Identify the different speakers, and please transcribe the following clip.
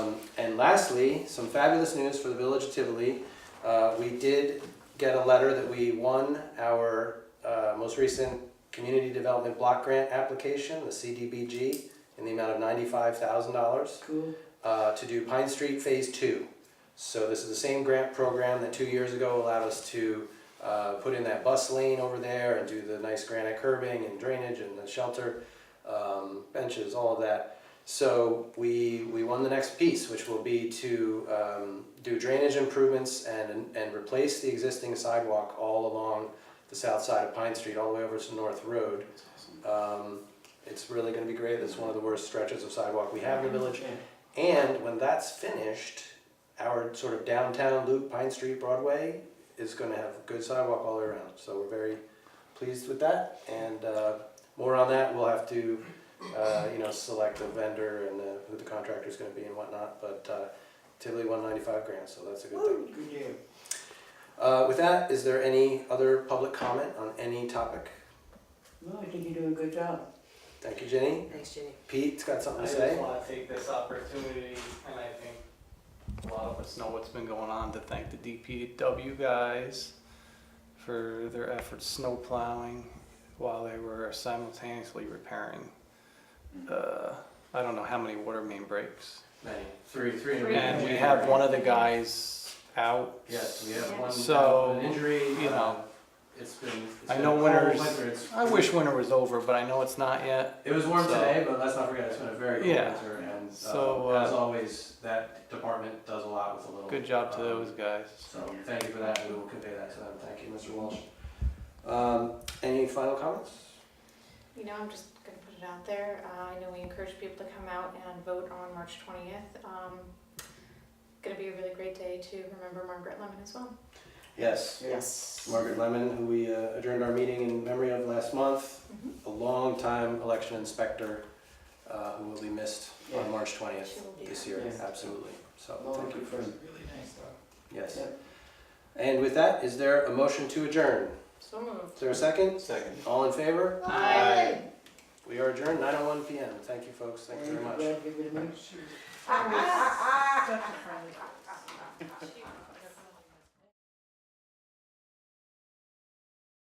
Speaker 1: Um, And lastly, some fabulous news for the Village of Tivoli. Uh, We did get a letter that we won our uh, most recent Community Development Block Grant application, the CDBG, in the amount of $95,000
Speaker 2: Cool.
Speaker 1: uh, to do Pine Street Phase Two. So this is the same grant program that two years ago allowed us to uh, put in that bus lane over there and do the nice granite curbing and drainage and the shelter um, benches, all of that. So we, we won the next piece, which will be to um, do drainage improvements and, and replace the existing sidewalk all along the south side of Pine Street, all the way over to North Road. Um, It's really gonna be great, it's one of the worst stretches of sidewalk we have in the village. And when that's finished, our sort of downtown loop, Pine Street, Broadway, is going to have good sidewalk all the way around. So we're very pleased with that. And uh, more on that, we'll have to, uh, you know, select a vendor and uh, who the contractor's going to be and whatnot. But uh, Tivoli won 95 grand, so that's a good thing.
Speaker 2: Good deal.
Speaker 1: Uh, with that, is there any other public comment on any topic?
Speaker 2: No, I think you're doing a good job.
Speaker 1: Thank you, Jenny.
Speaker 3: Thanks, Jenny.
Speaker 1: Pete's got
Speaker 4: I
Speaker 1: something to
Speaker 4: just
Speaker 1: say.
Speaker 4: want to take this opportunity, and I think a lot of us know what's been going on, to thank the DPW guys for their efforts snow plowing while they were simultaneously repairing.
Speaker 5: Mm-hmm.
Speaker 4: Uh, I don't know how many water main breaks.
Speaker 5: Many. Three, three in a
Speaker 3: Three.
Speaker 5: week.
Speaker 4: And we have one of the guys out.
Speaker 5: Yes, we have one.
Speaker 4: So,
Speaker 5: down with an injury. uh,
Speaker 4: you know.
Speaker 5: It's been. it's
Speaker 4: I
Speaker 5: been
Speaker 4: know
Speaker 5: a cold
Speaker 4: winters-
Speaker 5: winter. It's-
Speaker 4: I wish winter was over, but I know it's not yet.
Speaker 5: It was warm
Speaker 4: so-
Speaker 5: today, but let's not forget it's been a very cold
Speaker 4: Yeah.
Speaker 5: winter. And uh,
Speaker 4: So, uh,
Speaker 5: as always, that department does a lot with a little.
Speaker 4: Good job to
Speaker 5: um,
Speaker 4: those guys.
Speaker 5: So thank you for that. We will convey that to them.
Speaker 1: Thank you, Mr. Walsh. Um, any final comments?
Speaker 3: You know, I'm just gonna put it out there. Uh, I know we encourage people to come out and vote on March twentieth. Um, gonna be a really great day to remember Margaret Lemon as well.
Speaker 1: Yes.
Speaker 3: Yes.
Speaker 1: Margaret Lemon, who we uh, adjourned our meeting in memory of last month, a longtime election inspector uh, who will be missed
Speaker 2: Yeah.
Speaker 1: on March 20th
Speaker 3: She will be
Speaker 1: this
Speaker 3: here.
Speaker 1: year,
Speaker 2: Yeah.
Speaker 1: absolutely. So
Speaker 2: Well,
Speaker 1: thank you
Speaker 2: good
Speaker 1: for,
Speaker 2: person. Really nice though.
Speaker 1: yes.
Speaker 2: Yeah.
Speaker 1: And with that, is there a motion to adjourn?
Speaker 3: So moved.
Speaker 1: Is there a second?
Speaker 5: Second.
Speaker 1: All in favor?
Speaker 3: Aye.
Speaker 1: We are adjourned, 9:01 PM. Thank you, folks. Thank you very much.
Speaker 2: Glad to be with you.
Speaker 3: Ah, ah, ah. She-